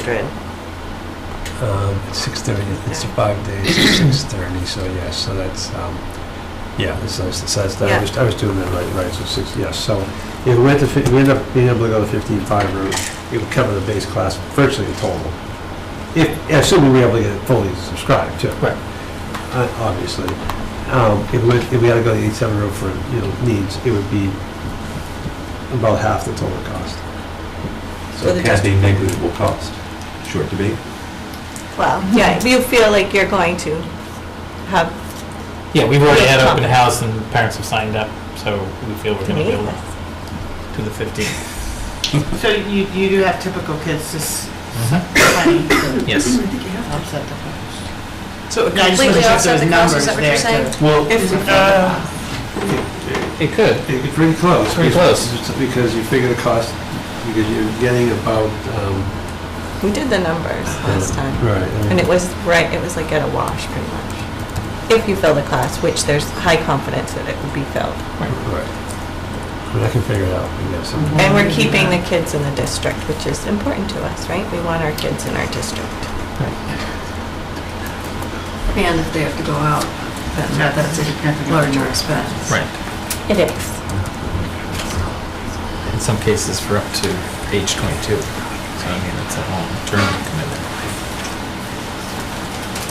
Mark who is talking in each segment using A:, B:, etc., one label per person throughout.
A: hundred.
B: Um, It's six thirty, it's five days, six thirty, so yes, so that's, um, yeah, that's, nice. that's, that's, I
A: Yeah.
B: was, I was doing that right, right, so six, yes, so. Yeah, we went to, fif- we ended up being able to go to fifteen-five route, it would cover the base class virtually in total. If, assuming we were able to get it fully subscribed too. Right. Obviously. Um, if we, if we had to go to eight-seven route for, you know, needs, it would be about half the total cost.
A: So
C: So
A: the
C: it can be negligible cost, short debate.
A: Well, yeah, if you feel like you're going to have
D: Yeah, we've already had
A: Yeah.
D: open house and parents have signed up, so we feel we're
A: to
D: gonna
A: meet
D: be
A: with
D: able
A: us.
D: to the fifteenth.
E: So you, you do have typical kids, just funny,
D: Yes.
E: upset the
F: So it
E: No, I just wasn't sure
F: completely
E: if there
F: offset
E: was
F: the cost,
E: numbers
F: is that what you're
E: there,
F: saying?
B: Well,
F: If,
B: uh,
D: It could.
B: It- It's pretty close.
D: Pretty close.
B: Just Because you figure the cost, because you're getting about, um. uh,
A: We did the numbers last
D: Uh-huh.
A: time.
B: Right.
A: And it was, right, it was like at a wash pretty much. If you fill the class, which there's high confidence that it would be filled.
B: Right. I mean, I can figure it out, I guess.
A: And
E: Mm-hmm.
A: we're keeping the kids in the district, which is important to us, right? We want our kids in our district.
F: and if they have to go out, then
E: Yeah.
F: that's a larger expense.
D: Right.
A: It is.
D: In some cases for up to age twenty-two. So I mean, it's a long-term commitment.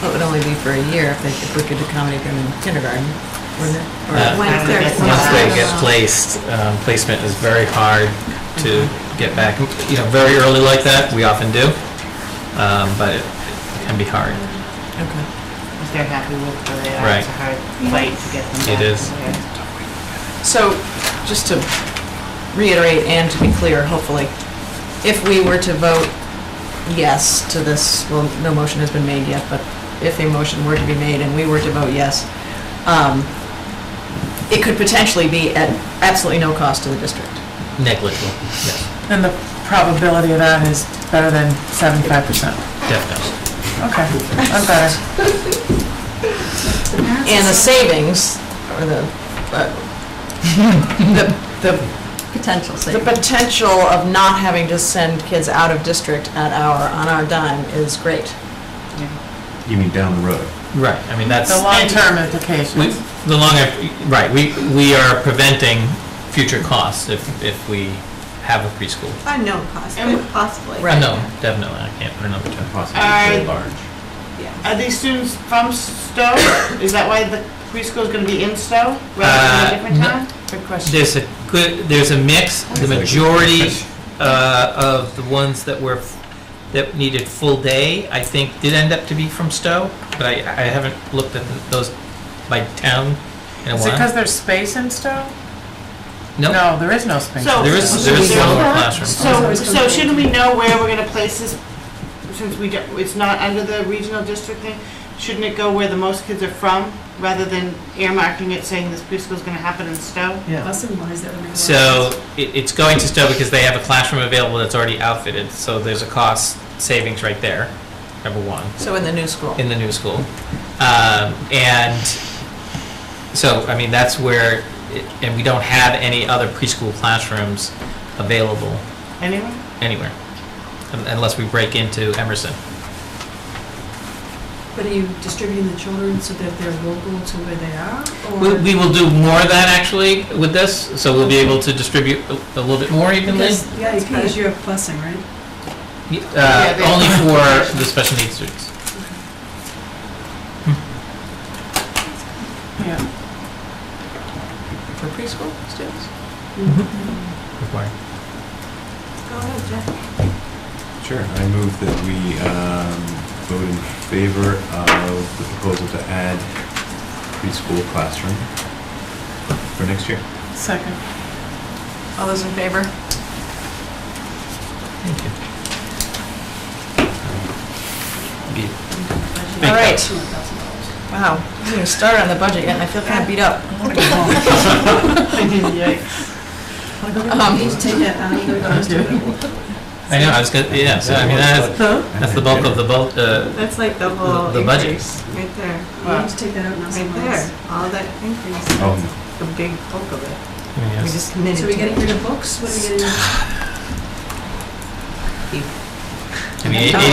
G: It would only be for a year if they, if we could accommodate them in kindergarten, wouldn't it? Or-
D: Uh,
F: Once they're
D: Once they
F: placed.
D: get placed, um, placement is very hard to get back, you know, very early like that, we often do. Um, but it it can be hard.
F: Okay.
E: if they're happy with where they are,
D: Right.
E: it's a hard fight to get them
D: It
E: back. to
D: is.
E: where-
F: So, just to reiterate and to be clear, hopefully, if we were to vote yes to this, well, no motion has been made yet, but if a motion were to be made and we were to vote yes, um, it could potentially be at absolutely no cost to the district.
D: Negligible, yes,
H: And the probability of that is better than seventy-five percent.
D: definitely.
H: Okay, that's better.
F: And the savings, or the, uh, the, the
G: Potential
F: The
G: savings.
F: potential of not having to send kids out of district at our, on our dime is great.
C: You mean down the road?
D: Right, I mean, that's.
H: The long-term
D: We,
H: implications.
D: the longer, right, we, we are preventing future costs if, if we have a preschool.
A: I know, possibly, possibly.
D: Uh, No, definitely, I can't put a number to it.
C: Possibly
E: Alright.
C: very large.
E: Are these students from Stowe? Is that why the preschool is gonna be in Stowe rather than a different
D: Uh,
E: town?
F: Good question.
D: There's a good, there's a mix, the majority uh, of the ones that were, f- that needed full day, I think, did end up to be from Stowe, but I, I haven't looked at those by town in a
H: Is it because
D: while.
H: there's space in Stowe?
D: No,
H: No, there is no space.
E: So-
D: there is, there is
E: so-
D: one more classroom.
E: So, so shouldn't we know where we're gonna place this, since we don't, it's not under the regional district thing? Shouldn't it go where the most kids are from, rather than earmarking it saying this preschool's gonna happen in Stowe?
D: So it, it's going to Stowe because they have a classroom available that's already outfitted, so there's a cost savings right there, number one.
F: So in the new school.
D: in the new school. Um, and so, I mean, that's where, it- and we don't have any other preschool classrooms available
E: Anyway,
D: anywhere, un- unless we break into Emerson.
I: But are you distributing the children so that they're local to where they are?
D: We,
I: or-
D: we will do more of that actually with this, so we'll be able to distribute a- a little bit more evenly.
I: Because the IEP is your blessing, right?
D: Uh, only for the special needs students.
H: Yeah.
F: For preschool students?
D: Required.
C: Sure, I move that we um, vote in favor of the proposal to add preschool classroom for next year.
H: Second.
F: All those in favor?
D: Thank you. Be-
F: All right. Wow, I didn't even start on the budget yet, and I feel kind of beat up. Um,
I: Take that out of the
D: I know, I was gonna, yeah, so I mean, that's, that's the bulk of the bulk, uh,
A: That's like the whole
D: The budget.
A: increase, right there,
I: You need to take that out now
A: right
I: somewhere else.
A: there, all that increase,
C: Oh,
A: the big bulk of it.
D: I mean,
A: We
D: yes.
A: just committed
I: So we
A: to
I: getting
A: it.
I: rid of books? What are we getting?
D: I mean,
G: Oh.
D: eighty